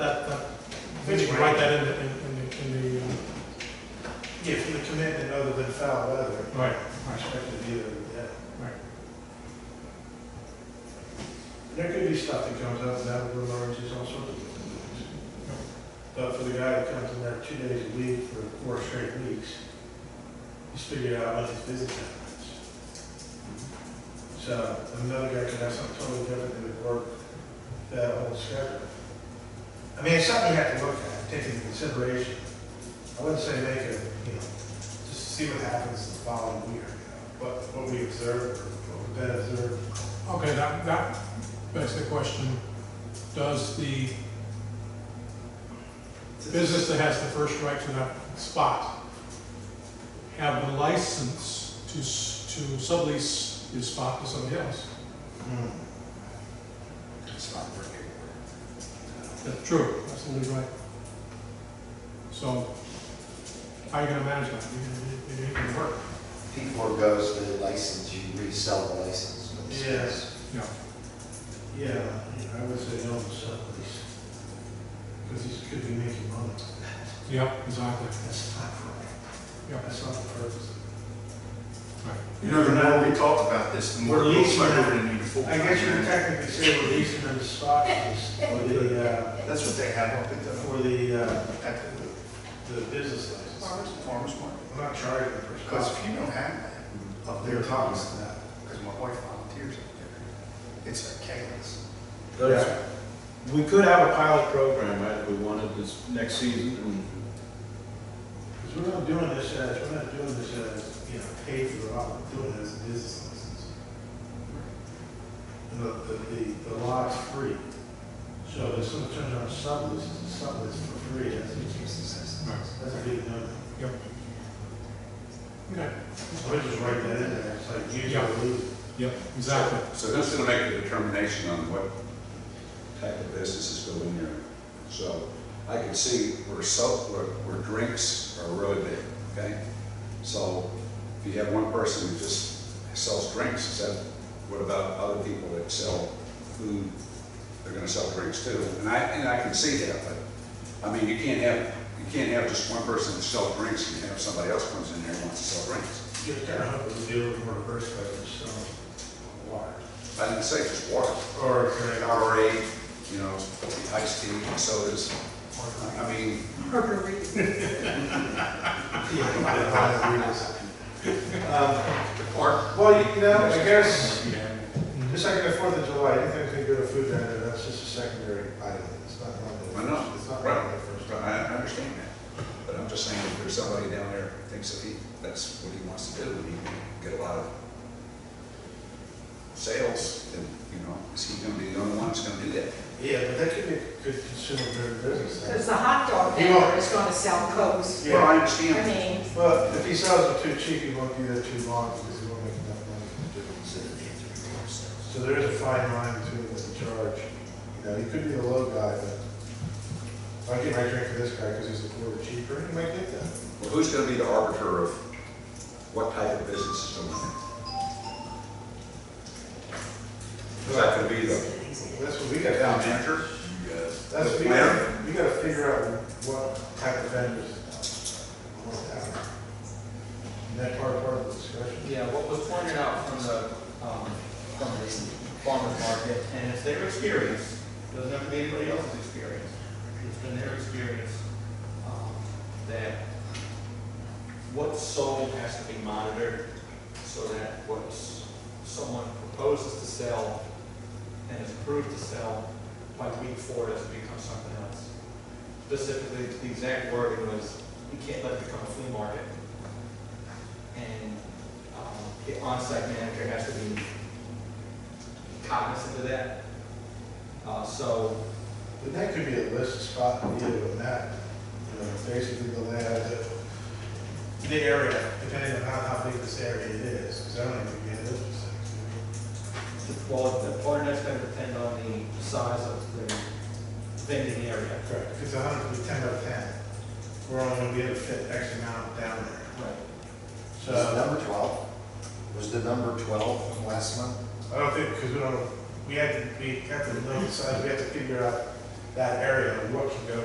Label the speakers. Speaker 1: That, that, I think you can write that in the, in in the, in the, uh,
Speaker 2: Yeah, for the commitment other than foul weather,
Speaker 1: right,
Speaker 2: I expect to be there, yeah.
Speaker 1: Right.
Speaker 2: There could be stuff that comes up, that with larges, all sorts of different things. But for the guy that comes in there two days a week for four straight weeks, he's figured out what his business happens. So another guy could have something totally different that would work that whole schedule. I mean, it's something you have to look at, take into consideration. I wouldn't say make a, you know, just see what happens the following year, you know, what, what we observe, what we've been observed.
Speaker 1: okay, that, that begs the question, does the business that has the first right to that spot have the license to, s- to sublease his spot to somebody else?
Speaker 2: Hmm,
Speaker 3: It's not working.
Speaker 1: That's true, absolutely right. So, how are you gonna manage that? It- It it ain't gonna work.
Speaker 3: P four goes with the license, you resell the license. for the space.
Speaker 2: Yes.
Speaker 1: Yeah.
Speaker 2: Yeah, I would say no to sublease. Because he's, could be making money.
Speaker 1: Yep, exactly.
Speaker 2: That's not right.
Speaker 1: Yeah.
Speaker 2: That's not the purpose.
Speaker 4: You know, the more we talk about this, the more
Speaker 2: We're
Speaker 4: it looks like
Speaker 2: leasing
Speaker 4: we're gonna need a full-time
Speaker 2: I guess you would
Speaker 4: manager.
Speaker 2: technically say we're leasing them a spot for the, uh,
Speaker 4: That's what they have up at the,
Speaker 2: for the, uh,
Speaker 4: at the
Speaker 2: the business license.
Speaker 4: farmer's market.
Speaker 2: I'm not charging them for
Speaker 4: Because
Speaker 2: spot.
Speaker 4: if you don't have that up there,
Speaker 2: They're talking
Speaker 4: Thomas,
Speaker 2: about that.
Speaker 4: because my wife volunteers up there, it's a chaos.
Speaker 5: Those- We could have a pilot program, right, if we wanted this next season, and
Speaker 2: Because we're not doing this as, we're not doing this as, you know, paid for, all. we're doing it as a business license. And the, the, the- the lot's free. So if someone turns on a sublease, it's a sublease for free, that's, that's a big number.
Speaker 1: Okay.
Speaker 2: So we just write that in there, it's like, use
Speaker 1: Yeah.
Speaker 2: or lose. it.
Speaker 1: Yep, exactly.
Speaker 6: So who's gonna make the determination on what type of businesses go in there? So I could see where soap, where, where drinks are really big, okay? So if you have one person who just sells drinks, is that, what about other people that sell food? They're gonna sell drinks too, and I, and I can see that, but, I mean, you can't have, you can't have just one person that sells drinks and have somebody else comes in there and wants to sell drinks.
Speaker 2: You Just kind of hope we do it more reverse by just selling water.
Speaker 6: I didn't say just water.
Speaker 2: Or, uh,
Speaker 6: Like
Speaker 2: drink.
Speaker 6: Gatorade, you know, iced tea, sodas. I mean,
Speaker 2: Or, well, you know, I guess,
Speaker 1: Mm-hmm.
Speaker 2: the second and fourth of July, anything that could go to food vendor, that's just a secondary item, it's not one of the.
Speaker 6: I know.
Speaker 2: It's not one
Speaker 6: right,
Speaker 2: of the first.
Speaker 6: I I understand that. But I'm just saying, if there's somebody down there who thinks that he, that's what he wants to do, and he can get a lot of sales, then, you know, is he gonna be the only one that's gonna do that?
Speaker 2: Yeah, but that could be a good consumer-driven business.
Speaker 7: There's
Speaker 2: then.
Speaker 7: a hot
Speaker 2: You
Speaker 7: dog vendor
Speaker 2: want-
Speaker 7: that's gonna sell Cokes.
Speaker 2: Yeah.
Speaker 6: Well, I
Speaker 7: I
Speaker 6: understand.
Speaker 7: mean,
Speaker 2: Well, if he sells it too cheap, he won't be there too long because he won't make enough money to do it. So there is a fine line between the charge. You know, he could be a low guy, but if I get my drink for this guy because he's a quarter cheaper, he might get that.
Speaker 6: Well, who's gonna be the arbiter of what type of business is going in? Because that could be the
Speaker 2: That's what we got down
Speaker 6: town
Speaker 2: there.
Speaker 6: manager,
Speaker 2: That's,
Speaker 6: the
Speaker 2: we
Speaker 6: planner.
Speaker 2: gotta, we gotta figure out what type of vendors we want to have. And that part, part of the discussion.
Speaker 8: Yeah, what was pointed out from the, um, from the farmer's market, and it's their experience, doesn't have to be anybody else's experience. It's been their experience, um, that what's sold has to be monitored so that what s- someone proposes to sell and is approved to sell by week four doesn't become something else. Specifically, the exact wording was, you can't let it become a flea market. And um, the on-site manager has to be cognizant of that. Uh, So
Speaker 2: And that could be a list of spot and deal with that, you know, basically the layout of the, the area, depending on how, how big this area is, because I don't think we have those things.
Speaker 8: Well, the part that's gonna depend on the size of the vending area.
Speaker 2: Correct, because a hundred, we ten out of ten, we're only gonna be able to fit X amount down there.
Speaker 8: Right.
Speaker 2: So,
Speaker 3: Was the number twelve? Was the number twelve from last month?
Speaker 2: I don't think, because we don't, we had to, we have to know the size, we have to figure out that area look